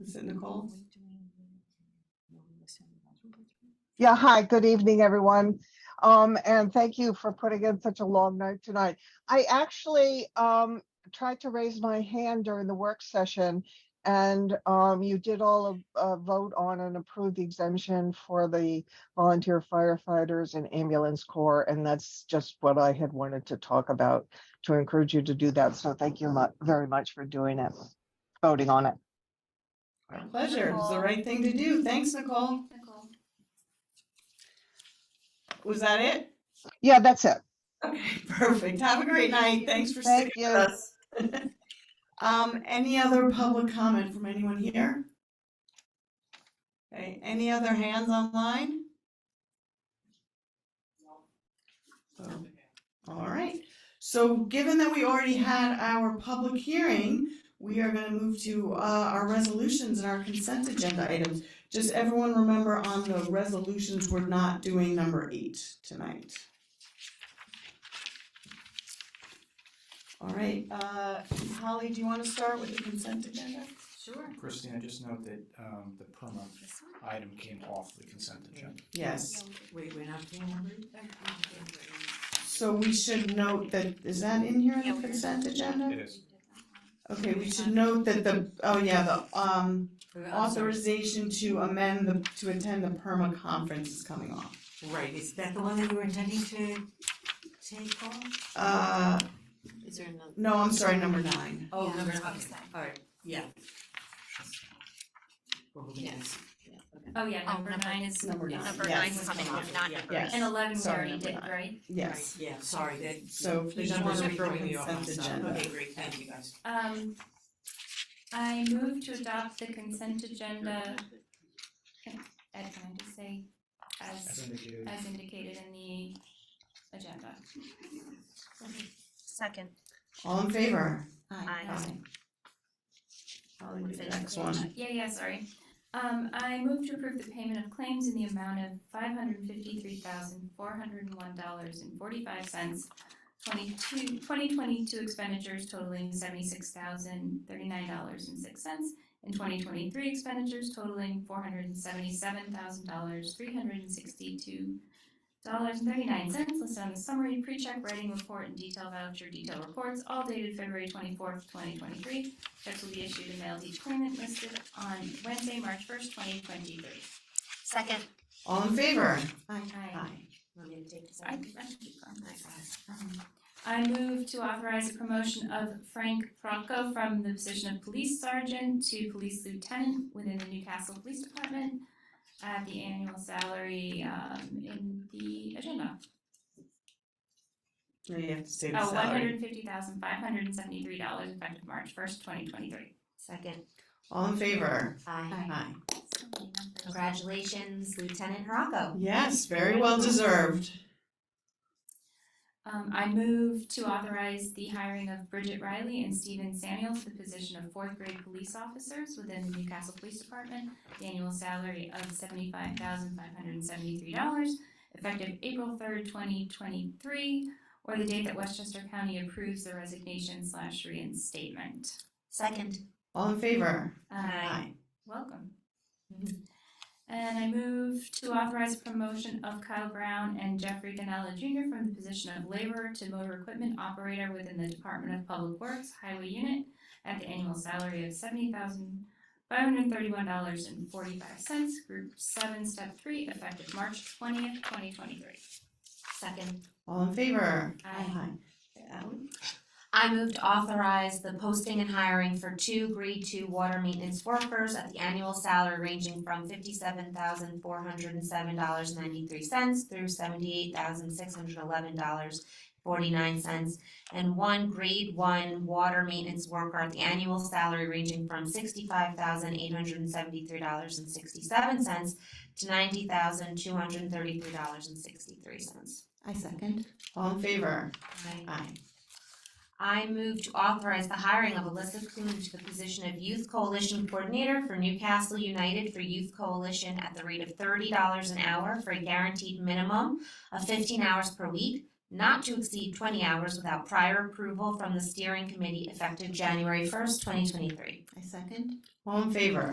Is it Nicole? Yeah, hi, good evening, everyone. Um, and thank you for putting in such a long night tonight. I actually, um, tried to raise my hand during the work session. And, um, you did all of, uh, vote on and approve the exemption for the volunteer firefighters and ambulance corps. And that's just what I had wanted to talk about, to encourage you to do that. So thank you mu- very much for doing it, voting on it. Our pleasure. It's the right thing to do. Thanks, Nicole. Was that it? Yeah, that's it. Okay, perfect. Have a great night. Thanks for Thank sticking with you. us. Um, any other public comment from anyone here? Okay, any other hands online? So, Um, All right, so given that we already had our public hearing, we are gonna move to, uh, our resolutions and our consent agenda items. Just everyone remember on the resolutions, we're not doing number eight tonight. All right, uh, Holly, do you want to start with the consent agenda? Sure. Christine, I just note that um, the perma item came off the consent agenda. Yes, Wait, we're not doing number? so we should note that, is that in here in the consent agenda? It is. Okay, we should note that the, oh yeah, the, um, authorization to amend the, to attend the perma conference is coming off. Right, is that the one that you were intending to take off? Uh, Is there another? no, I'm sorry, number nine. Oh, Yeah, number, that's okay, what I said. alright, yeah. We're holding this. Oh, yeah, Oh, number nine is, Number nine. number Yes. nine's coming off, not Yeah. number, Yes. and eleven we Sorry, already number did, nine. right? Yes, Yeah, sorry, that. so The please numbers remember are the throwing me off, I'm consent sorry. agenda. Okay, great, thank you guys. Um, I move to adopt the consent agenda. Can- Ed, can I just say, As as, indicated. as indicated in the agenda? Second. All in favor? Aye. Holly, do the next one. Yeah, yeah, sorry. Um, I move to approve the payment of claims in the amount of five hundred fifty-three thousand, four hundred and one dollars and forty-five cents. Twenty-two, twenty twenty-two expenditures totaling seventy-six thousand, thirty-nine dollars and six cents. And twenty twenty-three expenditures totaling four hundred and seventy-seven thousand dollars, three hundred and sixty-two dollars and thirty-nine cents listed on the summary pre-check writing report and detail voucher detail reports, all dated February twenty-fourth, twenty twenty-three. Checks will be issued and mailed to each claimant listed on Wednesday, March first, twenty twenty-three. Second. All in favor? Aye. Aye. Want me to take this? I can, I can keep going. Um, I move to authorize the promotion of Frank Franco from the position of police sergeant to police lieutenant within the Newcastle Police Department at the annual salary, um, in the agenda. Now you have to say the Oh, one salary. hundred fifty thousand, five hundred and seventy-three dollars effective March first, twenty twenty-three. Second. All in favor? Aye. Aye. Congratulations, Lieutenant Harako. Yes, very well deserved. Um, I move to authorize the hiring of Bridget Riley and Stephen Samuel to the position of fourth grade police officers within the Newcastle Police Department. The annual salary of seventy-five thousand five hundred and seventy-three dollars, effective April third, twenty twenty-three, or the date that Westchester County approves the resignation slash reinstatement. Second. All in favor? Uh, Welcome. And I move to authorize promotion of Kyle Brown and Jeffrey Ganella Jr. from the position of laborer to motor equipment operator within the Department of Public Works Highway Unit at the annual salary of seventy thousand five hundred thirty-one dollars and forty-five cents, group seven, step three, effective March twentieth, twenty twenty-three. Second. All in favor? Aye. Ally? I move to authorize the posting and hiring for two grade two water maintenance workers at the annual salary ranging from fifty-seven thousand four hundred and seven dollars ninety-three cents through seventy-eight thousand six hundred eleven dollars forty-nine cents. And one grade one water maintenance worker at the annual salary ranging from sixty-five thousand eight hundred and seventy-three dollars and sixty-seven cents to ninety thousand two hundred and thirty-three dollars and sixty-three cents. I second. All in favor? Aye. I move to authorize the hiring of Alyssa Kuhn to the position of Youth Coalition Coordinator for Newcastle United for Youth Coalition at the rate of thirty dollars an hour for a guaranteed minimum of fifteen hours per week, not to exceed twenty hours without prior approval from the steering committee effective January first, twenty twenty-three. I second. All in favor?